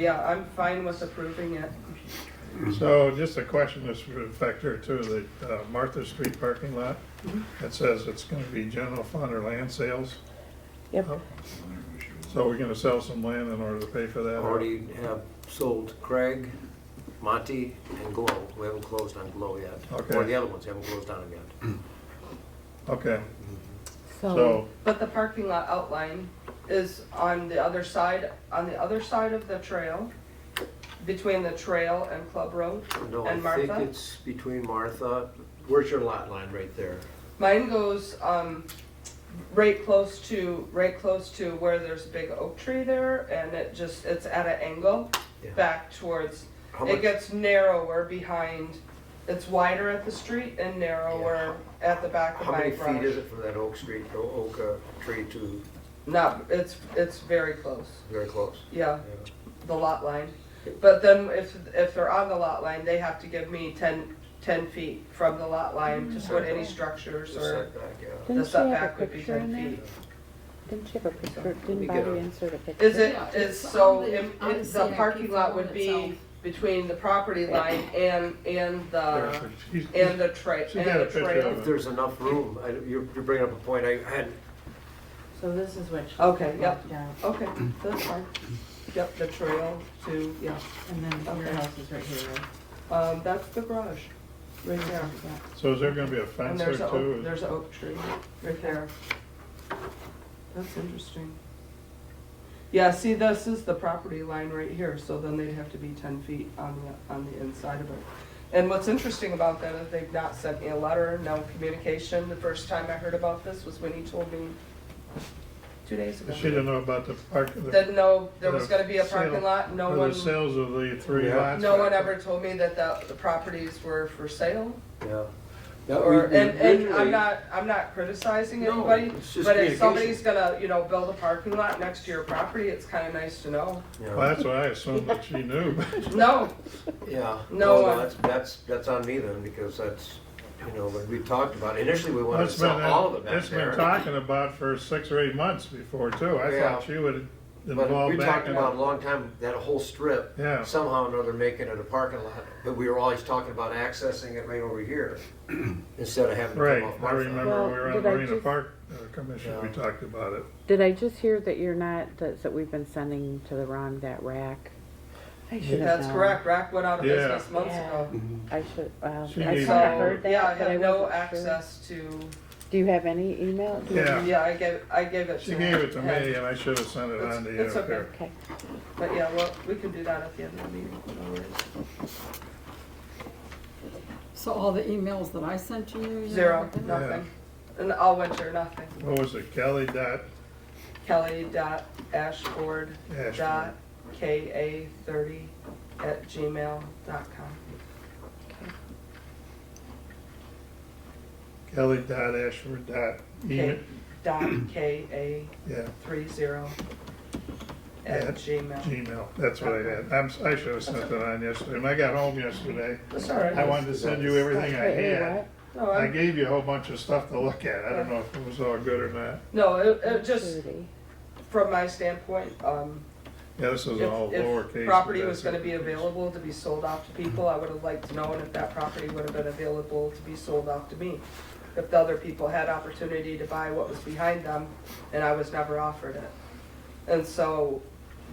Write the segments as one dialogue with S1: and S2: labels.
S1: Yeah, I'm fine with approving it.
S2: So just a question, this would affect her too, the uh, Martha Street parking lot. It says it's gonna be general fund or land sales.
S3: Yep.
S1: Oh.
S2: So we're gonna sell some land in order to pay for that? or-
S4: Already have sold Craig, Monty, and Glow. We haven't closed on Glow yet. Or
S2: Okay.
S4: the other ones, haven't closed on it yet.
S2: Okay,
S3: So,
S2: so,
S1: But the parking lot outline is on the other side, on the other side of the trail, between the trail and Club Road.
S4: No, I
S1: And
S4: think
S1: Martha?
S4: it's between Martha, where's your lot line right there?
S1: Mine goes, um, right close to, right close to where there's a big oak tree there, and it just, it's at an angle
S4: Yeah.
S1: back towards,
S4: How
S1: it
S4: much,
S1: gets narrower behind, it's wider at the street and narrower at the back of
S4: how
S1: my
S4: many feet is
S1: garage.
S4: it from that oak street, o- oak uh, tree to,
S1: Not, it's, it's very close,
S4: very close?
S1: yeah.
S4: Yeah.
S1: the lot line. But then if, if they're on the lot line, they have to give me 10 10 feet from the lot line
S5: Mm.
S1: to put any structures
S4: The
S1: or
S4: setback, yeah.
S1: the
S3: didn't she have
S1: setback
S3: a
S1: would be
S3: picture in
S1: ten
S3: there?
S1: feet.
S3: Didn't she have a picture?
S4: me
S3: Didn't
S4: get
S3: Bobby
S4: a-
S3: insert a picture?
S1: Is it,
S5: Yeah,
S1: is
S5: it's
S1: so,
S5: on the-
S1: im-
S5: on the
S1: it- the
S5: CIP
S1: parking lot would
S5: form
S1: be
S5: itself.
S1: between the property line and, and
S2: there's
S1: the,
S2: a- she's-
S1: Uh, and the trail,
S2: She got
S1: and
S2: a
S1: the
S2: picture
S1: trail.
S2: of
S4: If there's enough room, I- you're you're bringing up a point, I I hadn't
S5: So this is what you.
S1: Okay, Oh. yep.
S5: Yeah,
S1: Okay, that's fine. Yep, the trail to, yeah.
S5: and then your
S1: Okay.
S5: house is right here, right?
S1: Um, that's the garage, right there.
S2: so is there gonna be a
S1: And
S2: fence there
S1: there's a, oak-
S2: too?
S1: there's an oak tree right there. That's interesting. Yeah, see, this is the property line right here, so then they'd have to be ten feet on the, on the inside of it. And what's interesting about that is they've not sent me a letter, no communication. The first time I heard about this was when he told me two days ago.
S2: She didn't know about the park, the
S1: Didn't know there was
S2: the
S1: gonna be a
S2: sale-
S1: parking lot, no
S2: or
S1: one,
S2: the sales of the three
S4: Yeah.
S2: lots.
S1: no one ever told me that the, the properties were for sale.
S4: Yeah.
S1: Or, and, and I'm not, I'm not criticizing
S4: No,
S1: anybody,
S4: it's just
S1: but if somebody's
S4: communication.
S1: gonna, you know, build a parking lot next to your property, it's kinda nice to know.
S2: Well, that's what I assumed that she knew,
S1: No,
S4: Yeah.
S1: No uh,
S4: Well,
S1: one.
S4: That's, that's, that's on me then, because that's, you know, when we talked about, it, initially we wanted to
S2: That's
S4: sell
S2: been,
S4: all of it back
S2: that's been
S4: there.
S2: talking about for six or eight months before too. I
S4: Yeah.
S2: thought she would
S4: But
S2: involve
S4: we
S2: back
S4: talked
S2: in.
S4: about a long time, that whole strip,
S2: Yeah.
S4: somehow or another making it a parking lot, but we were always talking about accessing it right over here, instead of having to
S2: Right,
S4: come off
S2: I
S4: Martha.
S2: remember
S3: Well,
S2: we were on
S3: did I
S2: Marina
S3: just-
S2: Park uh, Commission, we
S4: Yeah.
S2: talked about it.
S3: Did I just hear that you're not, that, that we've been sending to the wrong that rack? I should have
S1: that's
S3: known.
S1: correct, Rack went out of
S2: Yeah.
S1: business months
S5: Yeah.
S1: ago.
S3: I should, well, I
S2: She
S3: should
S2: needs
S3: have
S2: to know.
S3: heard
S1: So, yeah, I
S3: that, but I
S1: have no
S3: wasn't sure.
S1: access to,
S3: Do you have any email? Do you have
S2: Yeah.
S3: any-
S1: yeah, I gave, I gave it to.
S2: She gave it to
S1: Ed.
S2: me and I should have sent it
S1: It's-
S2: on to you
S1: it's
S2: up
S1: okay.
S2: there.
S3: Okay,
S1: But yeah, well, we can do that at the end of the meeting. no worries.
S6: So all the emails that I sent to you? you
S1: Zero,
S6: never did?
S1: nothing, and all winter, nothing.
S2: What was it, Kelly dot
S1: Kelly dot Ashford
S2: Ashford?
S1: dot K A thirty at gmail dot com.
S2: Kelly dot Ashford dot email,
S1: K dot K A
S2: yeah,
S1: three zero at
S2: At
S1: Gmail.
S2: Gmail, that's what I had. I'm, si should have sent it on yesterday. When I got home yesterday,
S1: That's all right.
S2: I wanted to send you everything I
S3: Wait, wait,
S2: had.
S3: what?
S1: No,
S2: I
S1: I'm,
S2: gave you a whole bunch of stuff to look at. I don't know if it was all good or not.
S1: no, it, it just,
S3: Thirty.
S1: from my standpoint, um,
S2: Yeah, this is
S1: if,
S2: all lowercase.
S1: if
S2: but
S1: property
S2: that's
S1: was gonna be
S2: uppercase.
S1: available to be sold off to people, I would have liked to know and if that property would have been available to be sold off to me. If the other people had opportunity to buy what was behind them and I was never offered it. And so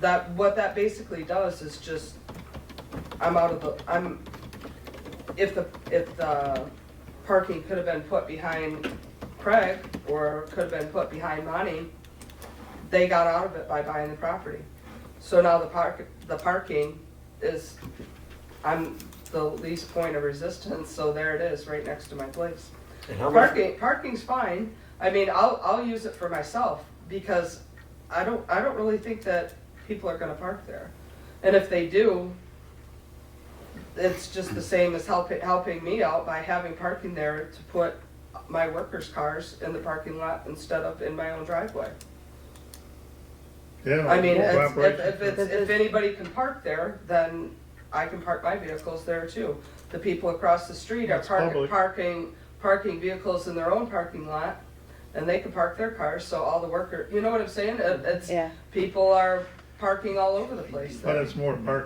S1: that, what that basically does is just, I'm out of the, I'm, if the, if the parking could have been put behind Craig or could have been put behind Monty, they got out of it by buying the property. So now the park, the parking is, I'm the least point of resistance, so there it is, right next to my place.
S4: And how much,
S1: Parking, parking's fine. I mean, I'll, I'll use it for myself because I don't, I don't really think that people are gonna park there. And if they do, it's just the same as helping, helping me out by having parking there to put my workers' cars in the parking lot instead of in my own driveway.
S2: Yeah.
S1: I mean, it's- if,
S2: cooperation.
S1: if it's, if anybody can park there, then I can park my vehicles there too. The people across the street are
S2: It's
S1: parking,
S2: public.
S1: parking, parking vehicles in their own parking lot, and they can park their cars, so all the worker, you know what I'm saying? It- It's,
S3: Yeah.
S1: people are
S7: parking all over the place there.
S1: But it's more parking